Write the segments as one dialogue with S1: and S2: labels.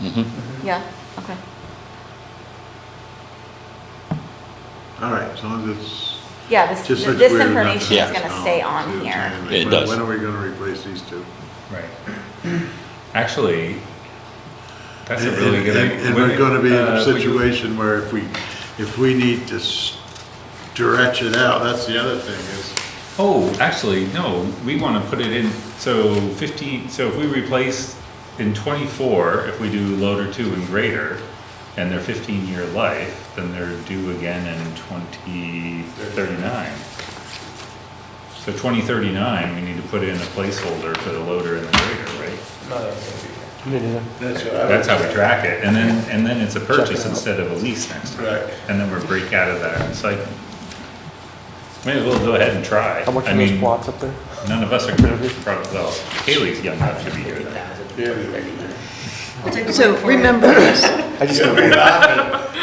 S1: Yeah, okay.
S2: All right, as long as it's
S1: Yeah, this,
S2: just such
S1: this
S2: weird
S1: information is
S2: nonsense.
S1: gonna
S2: Oh,
S1: stay
S2: see
S1: on
S2: what I'm
S1: here.
S2: saying? Like,
S3: It
S2: when-
S3: does.
S2: When are we gonna replace these two?
S4: Right. Actually, that's a
S2: And-
S4: really good
S2: and-
S4: idea.
S2: And we're gonna be in
S4: Uh,
S2: a
S4: we-
S2: situation where if we, if we need to stretch it out, that's the other thing is,
S4: Oh, actually, no, we want to put it in, so fifteen, so if we replace in twenty-four, if we do loader two and greater, and they're fifteen-year life, then they're due again in twenty thirty-nine. So twenty thirty-nine, we need to put in a placeholder for the loader and the greater, right?
S2: that's what I would.
S4: That's how we track it, and then, and then it's a purchase instead of a lease next time.
S2: Right.
S4: And then we're break out of that cycle. May as well go ahead and try.
S5: How much
S4: I
S5: are those
S4: mean,
S5: plots up there?
S4: None of us are gonna, probably, well, Haley's young enough to be here then.
S6: So remember this,
S5: I just, for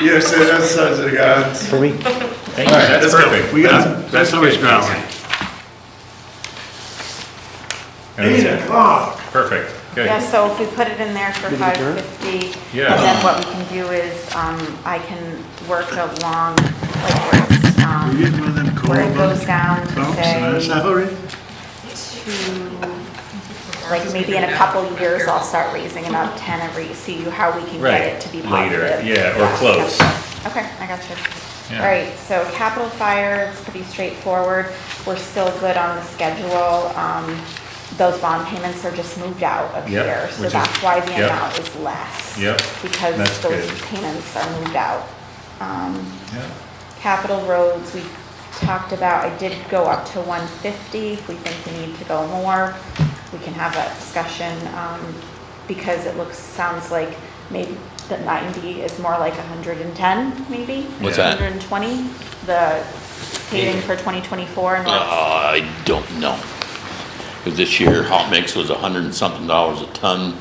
S2: You said that's such a god.
S5: me,
S4: Thank you, that's perfect.
S2: We
S4: That's-
S2: got, that's always
S4: good.
S2: ground.
S4: That's
S2: Eight
S4: it.
S2: o'clock.
S4: Perfect, good.
S1: Yeah, so if we put it in there for
S5: Did it
S1: five
S5: adjourn?
S1: fifty,
S4: Yeah.
S1: and then what we can do is, um, I can work along, like, where it's,
S2: We're
S1: um,
S2: getting one of them cold
S1: where it goes
S2: bumps
S1: down to
S2: in our
S1: say,
S2: salary.
S1: to, like, maybe in a couple years, I'll start raising about ten every, see how we can
S4: Right,
S1: get it to be
S4: later,
S1: positive.
S4: yeah, or close.
S1: Okay, I got you.
S4: Yeah.
S1: All right, so capital fire, it's pretty straightforward. We're still good on the schedule. Um, Those bond payments are just moved out of
S4: Yep,
S1: here, so
S4: which is-
S1: that's why the
S4: yep.
S1: amount is less.
S4: Yep,
S1: Because
S4: that's
S1: those
S4: good.
S1: payments are moved out. Um,
S4: Yeah.
S1: Capital roads, we talked about, I did go up to one fifty, if we think we need to go more, we can have that discussion, um, because it looks, sounds like maybe the ninety is more like hundred and ten, maybe?
S3: What's that?
S1: Hundred and twenty, the paving for twenty twenty-four
S3: Uh,
S1: and what?
S3: I don't know. 'Cause this year, hot mix was a hundred and something dollars a ton.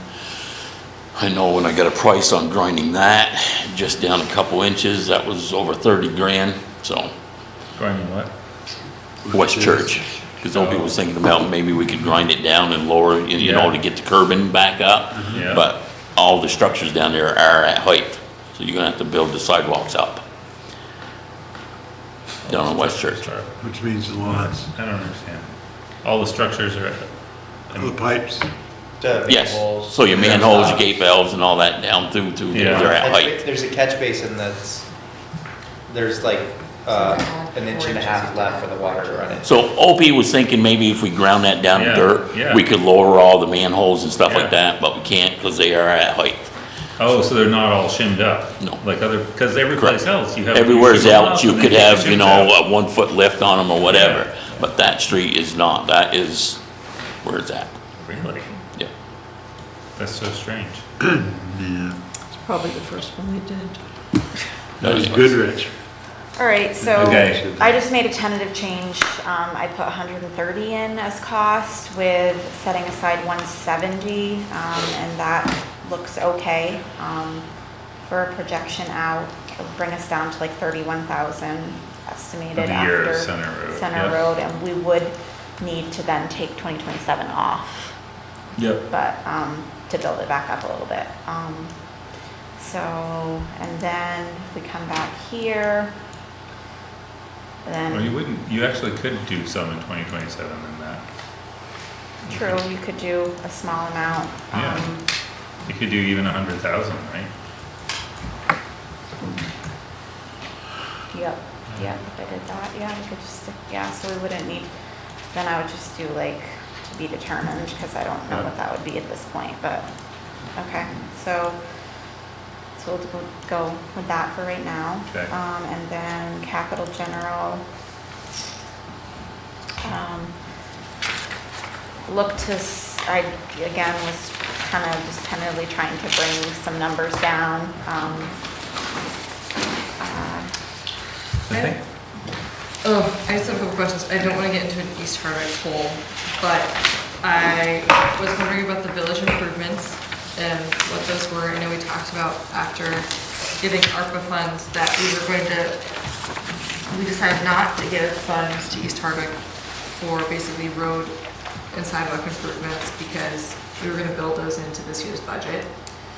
S3: I know when I got a price on grinding that, just down a couple inches, that was over thirty grand, so,
S4: Grinding what?
S3: West Church. Cause old people was thinking about maybe we could grind it down and lower, you you know,
S4: Yeah.
S3: to get the curbing back up.
S4: Yeah.
S3: But all the structures down there are at height, so you're gonna have to build the sidewalks up. Down on West Church.
S4: Sorry,
S2: Which means the lawns,
S4: I don't understand. All the structures are,
S2: the pipes.
S3: Yes, so your manholes, your gate valves and all that down through, through,
S4: Yeah.
S3: they're at
S7: Catch ba-
S3: height.
S7: There's a catch basin that's, there's like, uh, an inch and a half left for the water to run in.
S3: So OP was thinking maybe if we ground that down to
S4: Yeah, yeah.
S3: dirt, we could lower all the manholes and stuff like
S4: Yeah.
S3: that, but we can't because they are at height.
S4: oh, so they're not all shimmed up?
S3: No.
S4: Like other, because every place else, you have.
S3: Everywhere's
S4: shim them
S3: out,
S4: up
S3: you
S4: and
S3: could
S4: then
S3: have, you
S4: shims
S3: know,
S4: out.
S3: a one foot lift on them or whatever, but that street is not, that is where it's at.
S4: Really?
S3: Yeah,
S4: That's so strange.
S6: it's probably the first one they did.
S2: That was Goodrich.
S1: All right, so
S4: Okay.
S1: I just made a tentative change. Um, I put hundred and thirty in as cost with setting aside one seventy, um, and that looks okay. Um, for a projection out, it'll bring us down to like thirty-one thousand
S4: Of
S1: estimated
S4: the year of
S1: after.
S4: Center Road,
S1: Center
S4: yeah.
S1: Road, and we would need to then take twenty twenty-seven off
S4: Yep.
S1: but, um, to build it back up a little bit. Um, so, and then if we come back here,
S4: Well, you
S1: then,
S4: wouldn't, you actually could do some in twenty twenty-seven and that.
S1: true, you could do a small amount.
S4: Yeah.
S1: um,
S4: You could do even a hundred thousand, right?
S1: Yep, yep, if I did that, yeah, we could just, stick- yeah, so we wouldn't need, then I would just do like, to be determined, because I don't know what that would be at this point, but, okay, so, so we'll go- go with that for right now.
S4: Okay.
S1: Um, and then capital general. Um, look to, s- I, again, was kind of just tentatively trying to bring some numbers down, um, uh,
S4: I think,
S8: Oh, I just have a couple questions. I don't want to get into an East Hardwick hole, but I was wondering about the village improvements and what those were. I know we talked about after getting ARPA funds that we were going to, we decided not to give funds to East Hardwick for basically road and sidewalk improvements because we were going to build those into this year's budget.